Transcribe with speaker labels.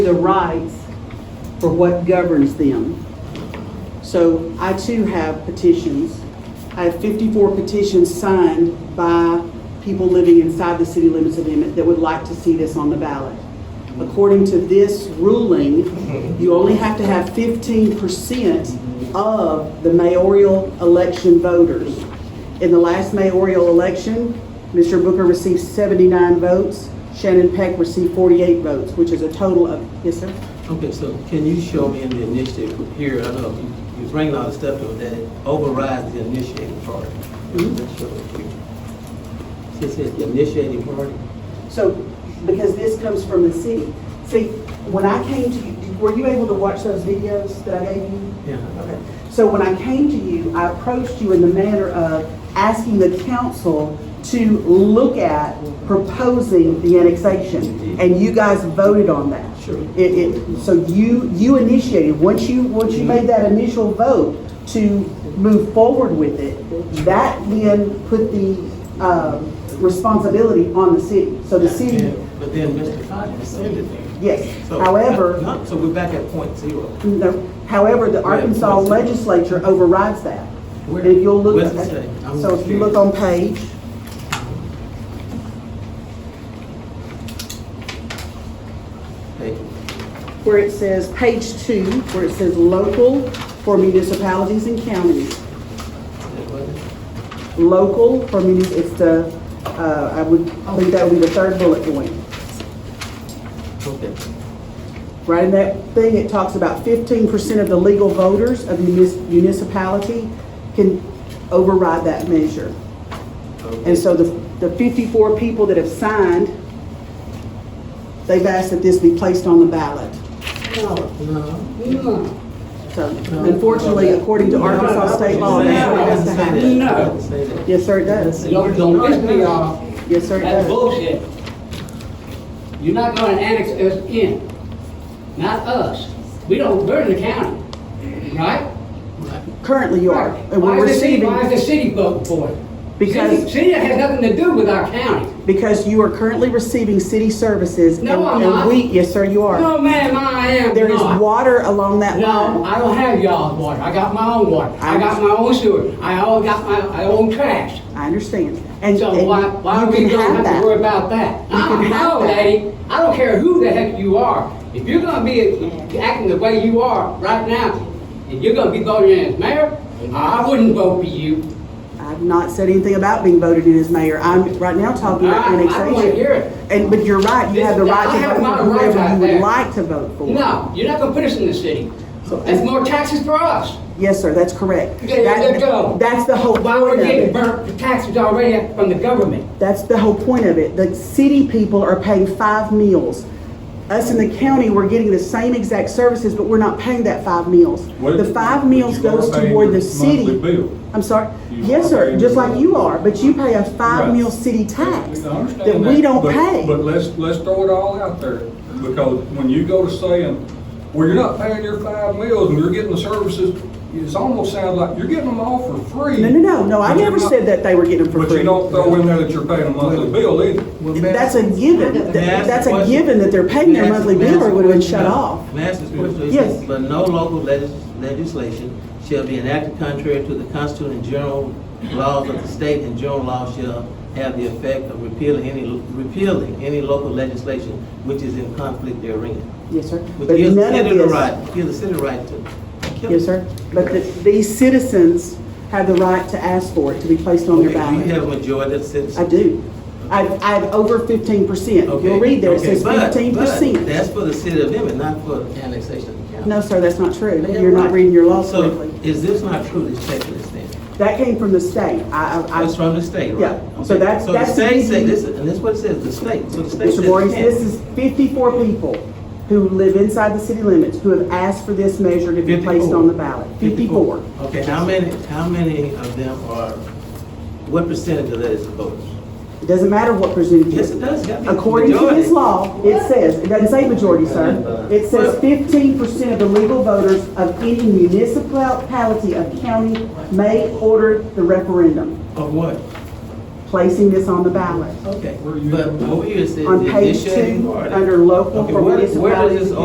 Speaker 1: the rights for what governs them. So I too have petitions. I have 54 petitions signed by people living inside the city limits of Emmett that would like to see this on the ballot. According to this ruling, you only have to have 15% of the mayoral election voters. In the last mayoral election, Mr. Booker received 79 votes, Shannon Peck received 48 votes, which is a total of, yes, sir?
Speaker 2: Okay, so can you show me in the initiative here, I know you- you're bringing all the stuff to it, that it overrides the initiating party. Let's show it here. See, It says the initiating party.
Speaker 1: So, because this comes from the city. See, when I came to you, were you able to watch those videos that I gave you?
Speaker 2: Yeah.
Speaker 1: Okay. So when I came to you, I approached you in the manner of asking the council to look at proposing the annexation. And you guys voted on that.
Speaker 2: Mm-hmm. Sure.
Speaker 1: It, it, so you, you initiated, once you, once you made that initial vote to move forward with it, that then put the, um, responsibility on the city. So the city,
Speaker 2: And- But then Mr. Cotton rescinded that.
Speaker 1: yes,
Speaker 2: So- uh,
Speaker 1: however,
Speaker 2: No, So we're back at point zero.
Speaker 1: no, however, the Arkansas legislature overrides that. And if you'll look,
Speaker 2: Where's it say? I'm
Speaker 1: so if you look on page,
Speaker 2: Thank you.
Speaker 1: where it says, page two, where it says local for municipalities and counties.
Speaker 2: That wasn't-
Speaker 1: local for me, it's the, uh, I would think that would be the third bullet point.
Speaker 2: Okay.
Speaker 1: Right in that thing, it talks about fifteen percent of the legal voters of munis- municipality can override that measure. And so the, the fifty-four people that have signed, they've asked that this be placed on the ballot.
Speaker 3: No,
Speaker 2: No.
Speaker 3: no.
Speaker 1: So unfortunately, according to Arkansas state law, that's what
Speaker 2: It
Speaker 1: has to
Speaker 2: doesn't say that.
Speaker 1: happen.
Speaker 2: It doesn't say that.
Speaker 1: Yes, sir, it does.
Speaker 3: Don't, don't piss me off.
Speaker 1: Yes, sir, it does.
Speaker 3: That's bullshit. You're not gonna annex us in. Not us. We don't, we're the county, right?
Speaker 1: Currently you are. And
Speaker 3: Why
Speaker 1: we're
Speaker 3: is the city,
Speaker 1: receiving.
Speaker 3: why is the city voting for it?
Speaker 1: Because-
Speaker 3: City- City has nothing to do with our county.
Speaker 1: Because you are currently receiving city services.
Speaker 3: No,
Speaker 1: and-
Speaker 3: I'm
Speaker 1: and
Speaker 3: not.
Speaker 1: we- Yes, sir, you are.
Speaker 3: No, ma'am, I am
Speaker 1: There is
Speaker 3: not.
Speaker 1: water along that
Speaker 3: No,
Speaker 1: line.
Speaker 3: I don't have y'all's water. I got my own water. I got my own sewer. I all got my, I own trash.
Speaker 1: I understand. And and
Speaker 3: So why, why
Speaker 1: you
Speaker 3: we
Speaker 1: can
Speaker 3: don't
Speaker 1: have
Speaker 3: have to worry
Speaker 1: that.
Speaker 3: about that?
Speaker 1: You can
Speaker 3: Uh-uh,
Speaker 1: have
Speaker 3: No,
Speaker 1: that.
Speaker 3: lady, I don't care who the heck you are. If you're gonna be acting the way you are right now, if you're gonna be voted in as mayor, I wouldn't vote for you.
Speaker 1: I've not said anything about being voted in as mayor. I'm right now talking about
Speaker 3: I- I don't
Speaker 1: annexation.
Speaker 3: wanna hear it.
Speaker 1: And, but you're right, you
Speaker 3: This-
Speaker 1: have the right
Speaker 3: I have
Speaker 1: to vote
Speaker 3: my
Speaker 1: for
Speaker 3: right
Speaker 1: whoever
Speaker 3: out
Speaker 1: you would
Speaker 3: there.
Speaker 1: like to vote for.
Speaker 3: No, you're not gonna put us in the city. That's more taxes for us.
Speaker 1: Yes, sir, that's correct.
Speaker 3: There
Speaker 1: That-
Speaker 3: you go.
Speaker 1: That's the whole
Speaker 3: Why we're
Speaker 1: point of
Speaker 3: getting
Speaker 1: it.
Speaker 3: burnt for taxes already from the government?
Speaker 1: That's the whole point of it. The city people are paying five meals. Us in the county, we're getting the same exact services, but we're not paying that five meals.
Speaker 4: What-
Speaker 1: The five meals
Speaker 4: but you are
Speaker 1: goes
Speaker 4: paying
Speaker 1: toward the
Speaker 4: your
Speaker 1: city.
Speaker 4: monthly bill.
Speaker 1: I'm sorry?
Speaker 4: You
Speaker 1: Yes,
Speaker 4: are
Speaker 1: sir,
Speaker 4: paying
Speaker 1: just
Speaker 4: your
Speaker 1: like
Speaker 4: monthly
Speaker 1: you
Speaker 4: bill.
Speaker 1: are, but you pay a five-meal city tax
Speaker 4: I understand
Speaker 1: that we don't
Speaker 4: but-
Speaker 1: pay.
Speaker 4: But let's, let's throw it all out there, because when you go to saying, well, you're not paying your five meals and you're getting the services, it's almost sounds like you're getting them all for free.
Speaker 1: No, no, no, no, I
Speaker 4: but you're
Speaker 1: never
Speaker 4: not-
Speaker 1: said that they were getting them for
Speaker 4: But
Speaker 1: free.
Speaker 4: you don't throw in there that you're paying a monthly bill either.
Speaker 2: Well, may I-
Speaker 1: That's a given. Th-
Speaker 2: May I ask
Speaker 1: That's
Speaker 2: a
Speaker 1: a
Speaker 2: question?
Speaker 1: given that they're paying their
Speaker 2: May I ask-
Speaker 1: monthly
Speaker 2: may I
Speaker 1: bill or
Speaker 2: ask
Speaker 1: it
Speaker 2: a
Speaker 1: would have been
Speaker 2: question?
Speaker 1: shut
Speaker 2: No.
Speaker 1: off.
Speaker 2: May I ask this question? It
Speaker 1: Yes.
Speaker 2: says, But no local legis- legislation shall be enacted contrary to the Constitution and general laws of the state, and general laws shall have the effect of repealing any, repealing any local legislation which is in conflict therein.
Speaker 1: Yes, sir.
Speaker 2: But
Speaker 1: But
Speaker 2: gives the
Speaker 1: none of
Speaker 2: city the
Speaker 1: this-
Speaker 2: right, gives the city the right to kill it.
Speaker 1: Yes, sir. But the- these citizens have the right to ask for it to be placed on
Speaker 2: Okay,
Speaker 1: their
Speaker 2: You
Speaker 1: ballot.
Speaker 2: have a majority of citizens.
Speaker 1: I do. I, I have over fifteen percent.
Speaker 2: Okay,
Speaker 1: You'll read there, it
Speaker 2: okay,
Speaker 1: says
Speaker 2: but-
Speaker 1: fifteen
Speaker 2: but That's
Speaker 1: percent.
Speaker 2: for the city of Emmett, not for annexation of the county.
Speaker 1: No, sir, that's not true.
Speaker 2: Yeah,
Speaker 1: You're not
Speaker 2: right.
Speaker 1: reading your law
Speaker 2: So,
Speaker 1: correctly.
Speaker 2: Is this not true, this checklist then?
Speaker 1: That came from the state. I, I,
Speaker 2: That's
Speaker 1: I,
Speaker 2: from the state, right?
Speaker 1: Yeah, so
Speaker 2: Okay,
Speaker 1: that's-
Speaker 2: So
Speaker 1: that's
Speaker 2: the state
Speaker 1: the-
Speaker 2: say, this, and this is what it says, the state, so the state
Speaker 1: Mr.
Speaker 2: says.
Speaker 1: Voorhees,
Speaker 2: ten.
Speaker 1: this is fifty-four people who live inside the city limits who have asked for this measure to be placed
Speaker 2: 54.
Speaker 1: on the ballot. Fifty-four.
Speaker 2: Okay, how many, how many of them are, what percentage of that is the voters?
Speaker 1: It doesn't matter what percentage.
Speaker 2: Yes, it does, gotta be a
Speaker 1: According to
Speaker 2: majority.
Speaker 1: this law, it says, it doesn't say majority, sir. It says fifteen percent of the legal voters of any municipality of county may order the referendum,
Speaker 2: Of what?
Speaker 1: placing this on the ballot.
Speaker 2: Okay,
Speaker 4: Where you-
Speaker 2: but over here it says.
Speaker 1: On
Speaker 2: the
Speaker 1: page
Speaker 2: initiating
Speaker 1: two,
Speaker 2: party.
Speaker 1: under local
Speaker 2: Okay,
Speaker 1: for
Speaker 2: where- Where does
Speaker 1: municipalities
Speaker 2: this
Speaker 1: and